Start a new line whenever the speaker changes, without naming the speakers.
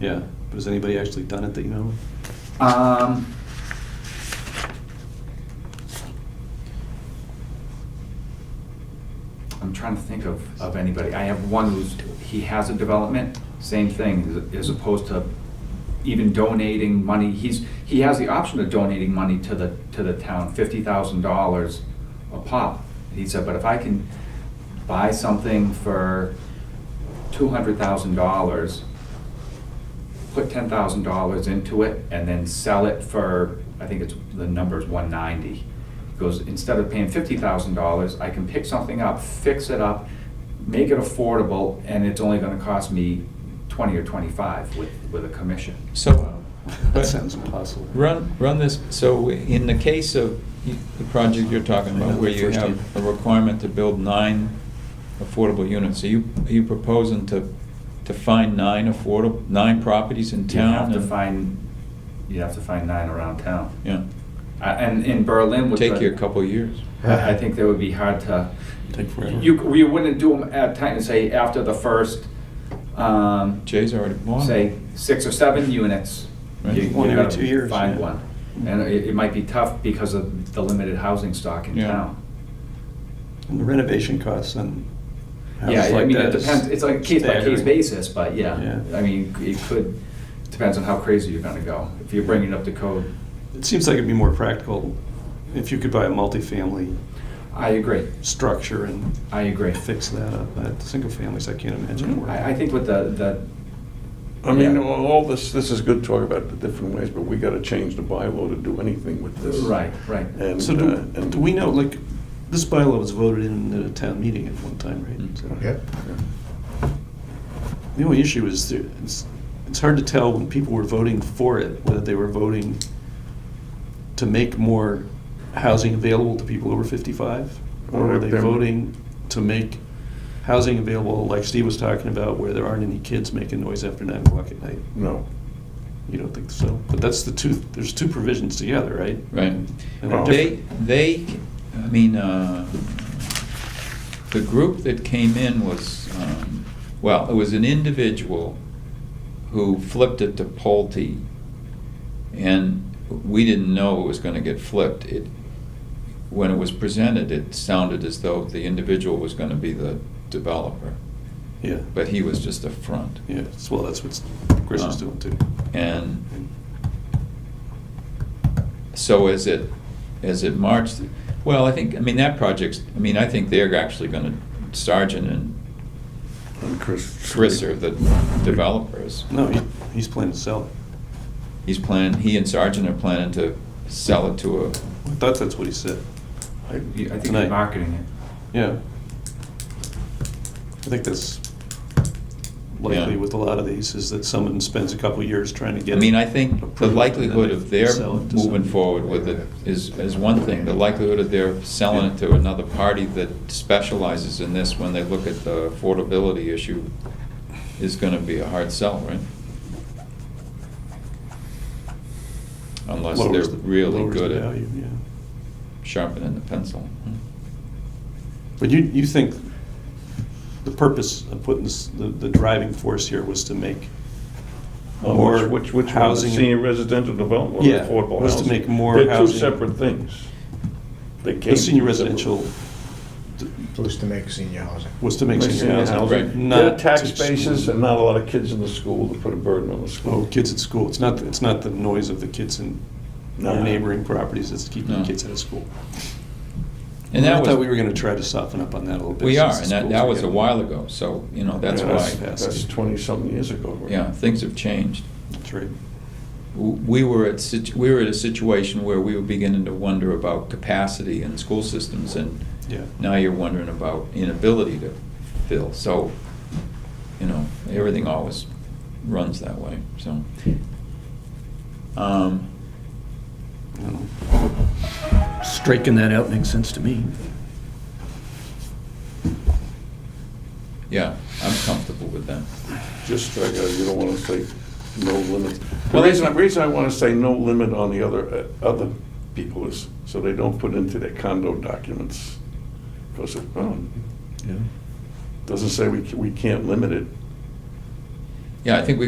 Yeah, but has anybody actually done it that you know?
Um, I'm trying to think of, of anybody. I have one who's, he has a development, same thing, as opposed to even donating money. He's, he has the option of donating money to the, to the town, fifty thousand dollars a pop. He said, but if I can buy something for two hundred thousand dollars, put ten thousand dollars into it and then sell it for, I think it's, the number's one ninety. Goes, instead of paying fifty thousand dollars, I can pick something up, fix it up, make it affordable, and it's only gonna cost me twenty or twenty-five with, with a commission. Um,
So-
That sounds impossible.
Run, run this, so in the case of y- the project you're talking about, where you
First
have a
year.
requirement to build nine affordable units, are you, are you proposing to, to find nine affordable, nine properties in
You
town?
have to
and-
find, you have to find nine around town.
Yeah,
I- And in Berlin with the.
take you a couple years.
I I think that would be hard to.
Take forever.
You, you wouldn't do them at time, say, after the first, um,
Jay's already bought.
say, six or seven units.
Right.
you- you
One every
gotta
two years,
Find
yeah.
one. And it, it might be tough because of the limited housing stock in
Yeah.
town.
And the renovation costs and.
Yeah,
houses
I
like
mean, it
that is
depends, it's on a case by case
staggering.
basis, but yeah,
Yeah.
I mean, it could, depends on how crazy you're gonna go. If you're bringing up the code,
It seems like it'd be more practical if you could buy a multifamily
I agree,
structure and
I agree. Mm-hmm.
fix that up. But single families, I can't imagine. working.
I, I think with the, the,
I mean,
Yeah.
all all this, this is good talk about the different ways, but we gotta change the bylaw to do anything with this.
right, right.
And,
So
uh,
do,
and-
do we know, like, this bylaw was voted in at a town meeting at one time, right?
Mm.
So-
Yep.
The only issue is there, it's, it's hard to tell when people were voting for it, whether they were voting to make more housing available to people over fifty-five? Or were they
Or them-
voting to make housing available, like Steve was talking about, where there aren't any kids making noise after nine o'clock at night?
No.
You don't think so? But that's the two, there's two provisions together, right?
Right.
And they're
Oh.
They,
different.
they, I mean, uh, the group that came in was, um, well, it was an individual who flipped it to Pulte, and we didn't know it was gonna get flipped. It, when it was presented, it sounded as though the individual was gonna be the developer,
Yeah,
but Uh. he was just a front.
yeah, so, well, that's what Chris is doing too.
And So as it, as it marched, well, I think, I mean, that project's, I mean, I think they're actually gonna, Sargent and
And Chris.
Chris are the developers.
No, he, he's planning to sell it.
He's planning, he and Sargent are planning to sell it to a,
I thought that's what he said.
I-
You- I think
Tonight.
you're marketing it.
Yeah. I think that's likely
Yeah.
with a lot of these, is that someone spends a couple of years trying to
I
get.
mean, I think
approved
the
and then
likelihood
they
of their
sell it to
moving
somebody.
forward with it is, is one thing. The likelihood of their selling it to another party that specializes in this when they look at the affordability issue is gonna be a hard sell, right? Unless
Lowers
they're
the-
really
lowers
good
the value,
at
yeah.
sharpening the pencil.
Mm-hmm. But you, you think the purpose of putting this, the, the driving force here was to make more
Uh, Which, which, which one?
housing?
Senior residential development,
Yeah,
or affordable housing.
was to make more
They're two
housing.
separate things. They
The
came.
senior
from
residential
was to make senior housing.
was to make
separate-
senior
housing.
housing,
They're
not.
tax
to-
bases and not a lot of kids in the school to put a burden on the
Oh,
school.
kids at school. It's not, it's not the noise of the kids in
No.
your Oh, neighboring properties that's keeping
No.
the kids out of school.
And
I
that was.
thought we were gonna try to soften up on that a little bit.
We
since
are,
the
and that,
schools
that
are
was a
getting-
while ago, so, you know, that's
Yeah,
why,
that's-
That's twenty-something years ago.
yeah, things have changed.
That's right.
we were at, situ- we were at a situation where we were beginning to wonder about capacity in school systems, and
Yeah.
now you're wondering about inability to fill. So, you know, everything always runs that way, so. Um,
Striking that out makes sense to me.
yeah, I'm comfortable with that.
Just strike out, you don't want to say no limit. The
Well, they-
reason, the reason I want to say no limit on the other, uh, other people is so they don't put into their condo documents. oh, Because it, well, doesn't say we, ca- we can't limit it.
Yeah, I think we